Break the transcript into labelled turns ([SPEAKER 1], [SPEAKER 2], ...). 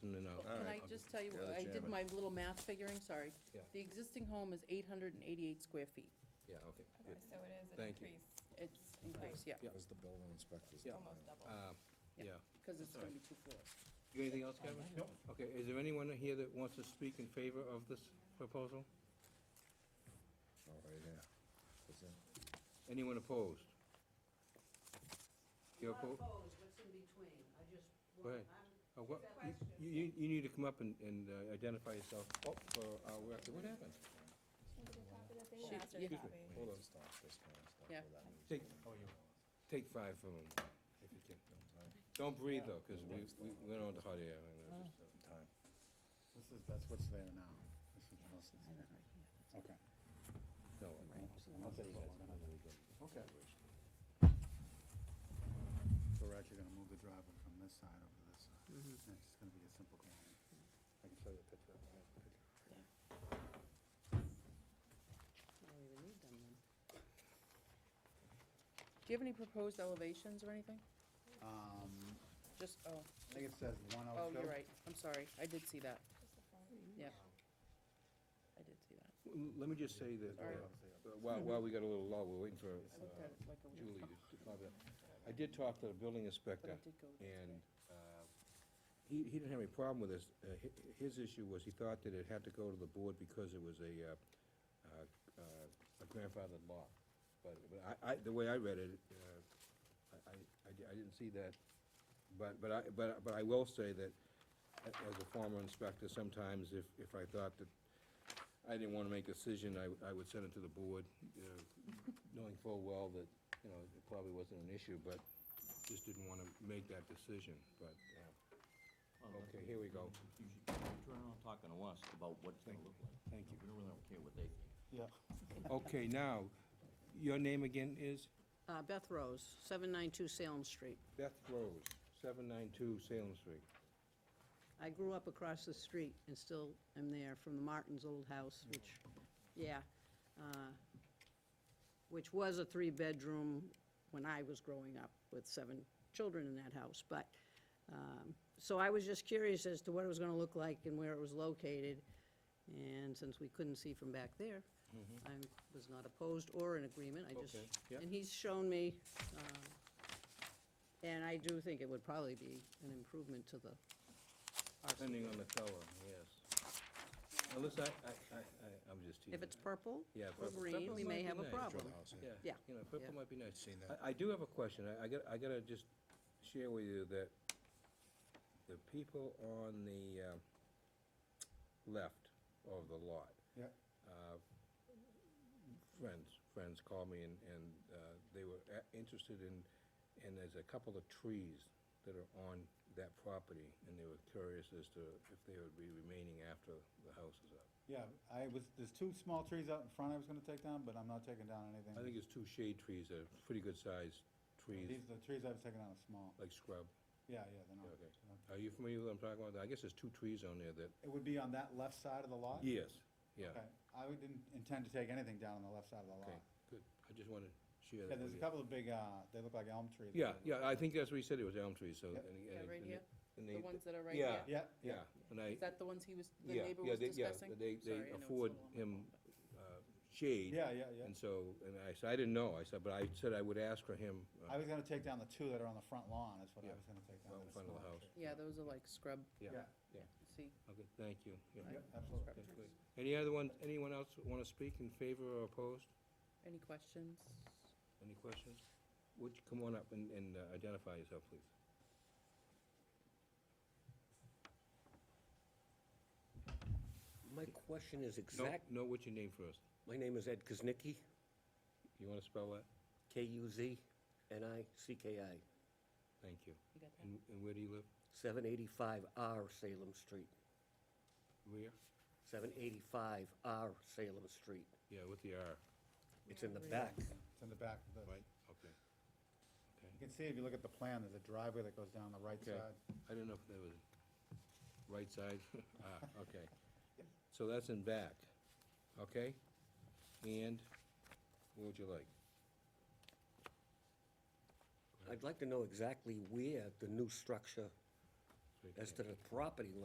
[SPEAKER 1] Oh.
[SPEAKER 2] just tell you,
[SPEAKER 1] You're the
[SPEAKER 2] I did
[SPEAKER 1] chairman.
[SPEAKER 2] my little math figuring, sorry.
[SPEAKER 1] Yeah.
[SPEAKER 2] The existing home is eight hundred and eighty-eight square feet.
[SPEAKER 1] Yeah, okay,
[SPEAKER 3] Okay,
[SPEAKER 1] good.
[SPEAKER 3] so it is an
[SPEAKER 1] Thank you.
[SPEAKER 3] increase,
[SPEAKER 2] It's increased, yeah,
[SPEAKER 1] Yeah.
[SPEAKER 4] Because the building inspector's.
[SPEAKER 1] Yeah.
[SPEAKER 3] almost double.
[SPEAKER 1] Uh,
[SPEAKER 2] Yeah.
[SPEAKER 1] Yeah.
[SPEAKER 2] because it's gonna be two floors.
[SPEAKER 1] You got anything else, Kevin?
[SPEAKER 5] Nope.
[SPEAKER 1] Okay, is there anyone here that wants to speak in favor of this proposal?
[SPEAKER 4] Oh, right here. Is it?
[SPEAKER 1] Anyone opposed? You're
[SPEAKER 6] Not
[SPEAKER 1] oppo-
[SPEAKER 6] opposed, what's in between? I just,
[SPEAKER 1] Go ahead.
[SPEAKER 6] I'm-
[SPEAKER 1] uh, what- You, you, you need to come up and, and uh, identify yourself, oh, for our record, what happened?
[SPEAKER 2] She-
[SPEAKER 3] Faster
[SPEAKER 2] yeah.
[SPEAKER 3] copy.
[SPEAKER 4] We
[SPEAKER 1] Hold
[SPEAKER 4] need
[SPEAKER 1] on.
[SPEAKER 4] to stop this kind of stuff.
[SPEAKER 2] Yeah.
[SPEAKER 4] without me
[SPEAKER 1] Take-
[SPEAKER 4] saying
[SPEAKER 1] oh, you-
[SPEAKER 4] anything.
[SPEAKER 1] Take five from him, if you can.
[SPEAKER 4] Time,
[SPEAKER 1] Don't breathe though, because we, we went on to hot air. and it was just-
[SPEAKER 4] time.
[SPEAKER 5] This is, that's what's there now. This is what's there. Okay.
[SPEAKER 1] No,
[SPEAKER 5] I'll tell you guys when I'm ready. Okay. So we're actually gonna move the driveway from this side over to this side.
[SPEAKER 2] Mm-hmm.
[SPEAKER 5] And It's just gonna be a simple corner. I can show you a picture of it.
[SPEAKER 2] I don't even need them then. Do you have any proposed elevations or anything?
[SPEAKER 5] Um,
[SPEAKER 2] Just, oh,
[SPEAKER 5] I think it says one oh
[SPEAKER 2] oh,
[SPEAKER 5] two.
[SPEAKER 2] you're right, I'm sorry, I did see that, yeah. I did see that.
[SPEAKER 1] L- Let me just say that,
[SPEAKER 2] All right.
[SPEAKER 1] uh, while, while we got a little lull, we're waiting for
[SPEAKER 2] I looked
[SPEAKER 1] uh,
[SPEAKER 2] at it like a week
[SPEAKER 1] Julie
[SPEAKER 2] ago,
[SPEAKER 1] to to comment. I did talk to the building
[SPEAKER 2] but
[SPEAKER 1] inspector,
[SPEAKER 2] I did go there
[SPEAKER 1] and
[SPEAKER 2] today.
[SPEAKER 1] uh, he, he didn't have any problem with this. Uh, hi- His issue was he thought that it had to go to the board because it was a, uh, uh, uh, a grandfathered lot. But but I, I, the way I read it, uh, I, I- I di- I didn't see that. But, but I, but, but I will say that, a- as a former inspector, sometimes if, if I thought that I didn't wanna make a decision, I, w- I would send it to the board, you know, knowing full well that, you know, it probably wasn't an issue, but just didn't wanna make that decision, but, uh, okay, here we go.
[SPEAKER 7] You should turn around talking to us about what it's gonna look like.
[SPEAKER 1] Thank you.
[SPEAKER 7] We don't really care what they think.
[SPEAKER 5] Yeah.
[SPEAKER 1] Okay, now, your name again is
[SPEAKER 2] Uh, Beth Rose, seven nine two Salem Street.
[SPEAKER 1] Beth Rose, seven nine two Salem Street.
[SPEAKER 8] I grew up across the street and still am there from the Martins' old house, which, yeah, uh, which was a three-bedroom when I was growing up with seven children in that house. But, um, so I was just curious as to what it was going to look like and where it was located. And since we couldn't see from back there, I was not opposed or in agreement. I just,
[SPEAKER 1] Mm-hmm. Okay, yeah.
[SPEAKER 8] and he's shown me, um, and I do think it would probably be an improvement to the
[SPEAKER 1] Depending on the color, yes. Unless I, I, I, I- I'm just teasing.
[SPEAKER 8] If it's purple
[SPEAKER 1] Yeah,
[SPEAKER 8] or
[SPEAKER 1] purple-
[SPEAKER 8] green,
[SPEAKER 1] purple
[SPEAKER 8] we
[SPEAKER 1] might
[SPEAKER 8] may
[SPEAKER 1] be
[SPEAKER 8] have a
[SPEAKER 1] nice.
[SPEAKER 8] problem.
[SPEAKER 1] Yeah,
[SPEAKER 8] Yeah.
[SPEAKER 1] you know, purple
[SPEAKER 8] Yeah.
[SPEAKER 1] might be nice.
[SPEAKER 4] Seen that.
[SPEAKER 1] I, I do have a question. I, I gotta, I gotta just share with you that the people on the, uh, left of the lot.
[SPEAKER 5] Yeah.
[SPEAKER 1] uh, Friends, friends called me and, and, uh, they were a- interested in, and there's a couple of trees that are on that property, and they were curious as to if they would be remaining after the house is up.
[SPEAKER 5] Yeah, I was, there's two small trees out in front I was gonna take down, but I'm not taking down anything.
[SPEAKER 1] I think it's two shade trees, they're pretty good sized trees,
[SPEAKER 5] These, the trees I was taking down are small.
[SPEAKER 1] like scrub.
[SPEAKER 5] Yeah, yeah, they're
[SPEAKER 1] Yeah,
[SPEAKER 5] not.
[SPEAKER 1] okay. Are you familiar with what I'm talking about? I guess there's two trees on there that.
[SPEAKER 5] It would be on that left side of the lot?
[SPEAKER 1] Yes. Yeah,
[SPEAKER 5] Okay, I would- didn't intend to take anything down on the left side of the
[SPEAKER 1] okay,
[SPEAKER 5] lot.
[SPEAKER 1] good. I just wanted to share
[SPEAKER 5] Yeah,
[SPEAKER 1] that
[SPEAKER 5] there's
[SPEAKER 1] with you.
[SPEAKER 5] a couple of big, uh, they look like elm trees.
[SPEAKER 1] Yeah, yeah, I think that's what he said, it was elm trees, so.
[SPEAKER 5] Yeah.
[SPEAKER 1] and-
[SPEAKER 2] Yeah,
[SPEAKER 1] and-
[SPEAKER 2] right
[SPEAKER 1] and
[SPEAKER 2] here,
[SPEAKER 1] they- and
[SPEAKER 2] the
[SPEAKER 1] they-
[SPEAKER 2] ones that are right here.
[SPEAKER 1] yeah,
[SPEAKER 5] Yeah, yeah.
[SPEAKER 1] Yeah, and I,
[SPEAKER 2] Is that the ones he was, the
[SPEAKER 1] yeah,
[SPEAKER 2] neighbor
[SPEAKER 1] yeah,
[SPEAKER 2] was
[SPEAKER 1] they, yeah,
[SPEAKER 2] discussing?
[SPEAKER 1] they,
[SPEAKER 2] Sorry,
[SPEAKER 1] they
[SPEAKER 2] I know it's a
[SPEAKER 1] afford
[SPEAKER 2] little on my
[SPEAKER 1] him,
[SPEAKER 2] phone, but-
[SPEAKER 1] uh, shade.
[SPEAKER 5] Yeah, yeah, yeah.
[SPEAKER 1] And so, and I said, I didn't know, I said, but I said I would ask for him,
[SPEAKER 5] I
[SPEAKER 1] uh,
[SPEAKER 5] was gonna take down the two that are on the front lawn, is what
[SPEAKER 1] Yeah.
[SPEAKER 5] I was gonna take down.
[SPEAKER 1] Out in
[SPEAKER 5] that are
[SPEAKER 1] front of the
[SPEAKER 5] small
[SPEAKER 1] house.
[SPEAKER 5] trees.
[SPEAKER 2] Yeah, those are like scrub,
[SPEAKER 1] yeah,
[SPEAKER 5] Yeah,
[SPEAKER 2] see,
[SPEAKER 1] okay, thank you. yeah,
[SPEAKER 5] yeah,
[SPEAKER 2] scrub
[SPEAKER 5] absolutely.
[SPEAKER 1] that's
[SPEAKER 2] trees.
[SPEAKER 1] good. Any other one, anyone else wanna speak in favor or opposed?
[SPEAKER 2] Any questions?
[SPEAKER 1] Any questions? Would you come on up and, and uh, identify yourself, please?
[SPEAKER 9] My question is
[SPEAKER 1] No,
[SPEAKER 9] exact,
[SPEAKER 1] No, what's your name first?
[SPEAKER 9] my name is Ed Kuznicki,
[SPEAKER 1] You wanna spell that?
[SPEAKER 9] K-U-Z-N-I-C-K-I,
[SPEAKER 1] Thank you.
[SPEAKER 2] You got that?
[SPEAKER 1] And, and where do you live?
[SPEAKER 9] 785R Salem Street,
[SPEAKER 1] Where?
[SPEAKER 9] 785R Salem Street.
[SPEAKER 1] Yeah, with the R,
[SPEAKER 9] It's in the back.
[SPEAKER 5] It's in the back of the,
[SPEAKER 1] right?
[SPEAKER 5] you
[SPEAKER 1] Okay. Okay.
[SPEAKER 5] can see if you look at the plan, there's a driveway that goes down the right
[SPEAKER 1] Okay.
[SPEAKER 5] side.
[SPEAKER 1] I didn't know if that was right side. Ah, okay. So that's in back, okay? And what would you like?
[SPEAKER 9] I'd like to know exactly where the new structure
[SPEAKER 1] Right
[SPEAKER 9] as
[SPEAKER 1] there.
[SPEAKER 9] to the property line